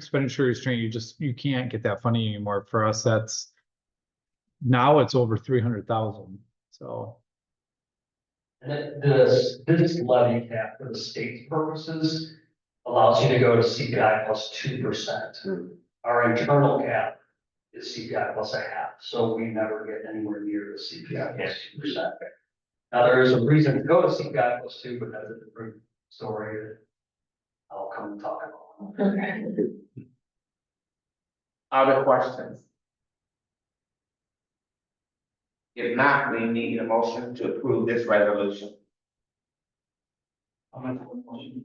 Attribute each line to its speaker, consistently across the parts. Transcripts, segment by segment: Speaker 1: expenditure restraint, you just, you can't get that funding anymore. For us, that's now it's over three hundred thousand, so.
Speaker 2: The, this, this levy cap for the state's purposes allows you to go to CPI plus two percent.
Speaker 3: Hmm.
Speaker 2: Our internal cap is CPI plus a half, so we never get anywhere near the CPI plus two percent. Now, there is a reason to go to CPI plus two, but that's a different story that I'll come talk about.
Speaker 3: Okay.
Speaker 4: Other questions? If not, we need a motion to approve this resolution.
Speaker 2: I'm gonna put a motion.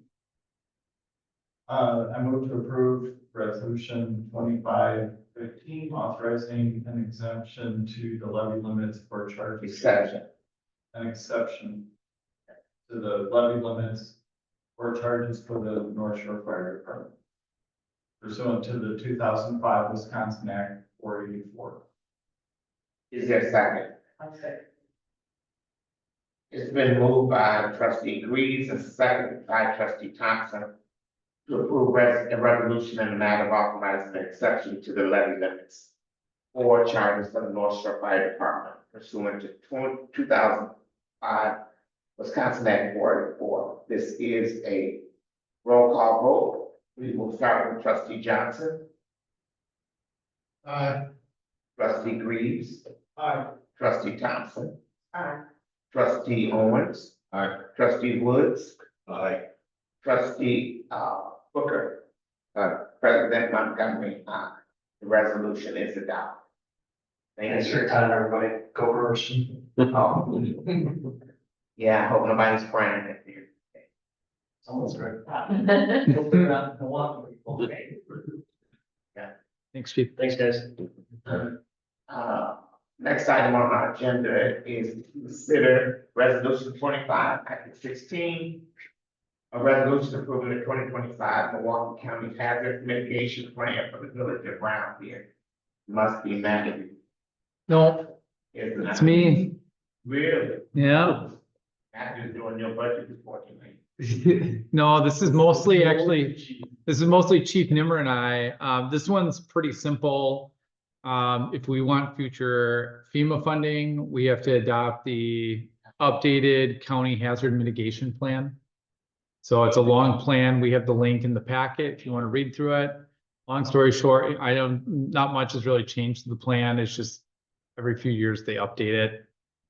Speaker 5: Uh, I move to approve resolution twenty-five fifteen, authorizing an exemption to the levy limits for charter schools.
Speaker 4: Exception.
Speaker 5: An exception to the levy limits for charges for the North Shore Fire Department. Pursuant to the two thousand five Wisconsin Act four eighty-four.
Speaker 4: Is there a second? It's been moved by trustee Greaves and seconded by trustee Thompson to approve res- a resolution in the matter of authorizing an exception to the levy limits for charges for the North Shore Fire Department pursuant to tw- 2005 Wisconsin Act 44. This is a roll call vote. We will start with trustee Johnson,
Speaker 5: Aye.
Speaker 4: trustee Greaves,
Speaker 5: Aye.
Speaker 4: trustee Thompson,
Speaker 3: Aye.
Speaker 4: trustee Owens,
Speaker 5: Aye.
Speaker 4: trustee Woods,
Speaker 5: Aye.
Speaker 4: Trustee, uh, Booker. Uh, President Montgomery, aye. The resolution is adopted.
Speaker 2: Thanks
Speaker 4: Thank
Speaker 2: for
Speaker 4: you.
Speaker 2: your time, everybody. Go first.
Speaker 4: Oh. Yeah, I hope nobody's crying at you.
Speaker 2: Someone's great.
Speaker 3: Aye.
Speaker 2: Don't put it on the one. Okay.
Speaker 1: Thanks, Chief.
Speaker 2: Thanks, guys.
Speaker 4: Uh, next item on our agenda is to consider resolution twenty-five, act sixteen. A resolution approving the twenty twenty-five Milwaukee County Hazard Mitigation Plan for the Village of Brownfield. Must be met.
Speaker 1: No,
Speaker 4: It's
Speaker 1: it's me,
Speaker 4: Really?
Speaker 1: yeah.
Speaker 4: After doing your budget report tonight.
Speaker 1: No, this is mostly actually. This is mostly Chief Nimmer and I. Um, this one's pretty simple. Um, if we want future FEMA funding, we have to adopt the updated county hazard mitigation plan. So it's a long plan. We have the link in the packet if you want to read through it. Long story short, I don't, not much has really changed to the plan. It's just every few years they update it.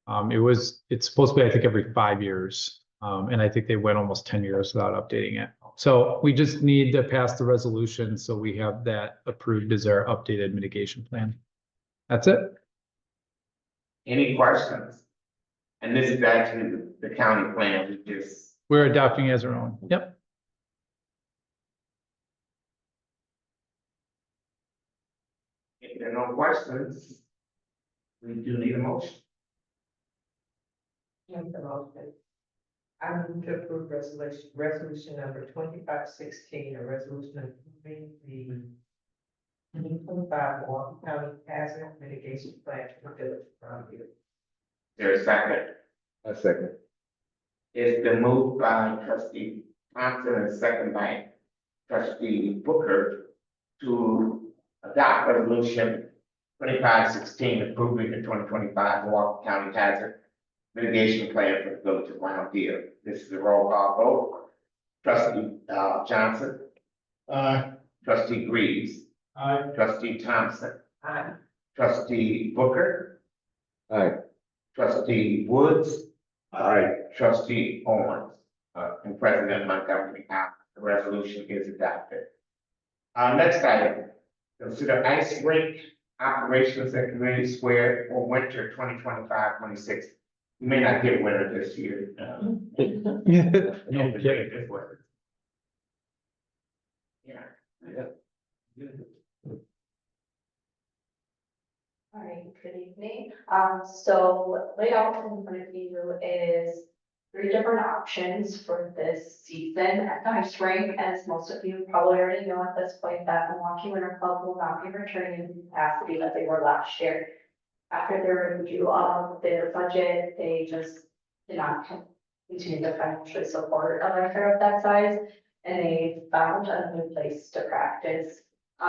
Speaker 1: Um, it was, it's supposed to be, I think, every five years. Um, and I think they went almost ten years without updating it. So we just need to pass the resolution, so we have that approved as our updated mitigation plan. That's it.
Speaker 4: Any questions? And this is actually the- the county plan, we just,
Speaker 1: We're adopting as our own. Yep.
Speaker 4: if there are no questions, we do need a motion.
Speaker 3: Make the motion. I move to approve resolution, resolution number twenty-five sixteen, a resolution approving the twenty twenty-five Walton County Hazard Mitigation Plan for the Village of Brownfield.
Speaker 4: There's a second.
Speaker 6: A second.
Speaker 4: It's been moved by trustee Thompson and second by trustee Booker to adopt resolution twenty-five sixteen approving the twenty twenty-five Milwaukee County Hazard mitigation plan for the village of Round Deer. This is a roll call vote. Trustee, uh, Johnson,
Speaker 5: Aye.
Speaker 4: trustee Greaves,
Speaker 5: Aye.
Speaker 4: trustee Thompson,
Speaker 3: Aye.
Speaker 4: trustee Booker,
Speaker 6: Aye.
Speaker 4: trustee Woods,
Speaker 6: Aye.
Speaker 4: Trustee Owens, uh, and President Montgomery, aye. The resolution is adopted. Uh, next item, consider ice rink operations at community square for winter 2025-26. We may not get winter this year. uh,
Speaker 1: No
Speaker 4: if
Speaker 1: kidding.
Speaker 4: we get this weather. Yeah.
Speaker 7: All right, good evening. Um, so laid out in front of you is three different options for this season at the ice rink. As most of you probably already know at this point, that Milwaukee Winter Club will not be returning in the capacity that they were last year. After their review of their budget, they just did not continue to financially support a winter of that size. And they found a new place to practice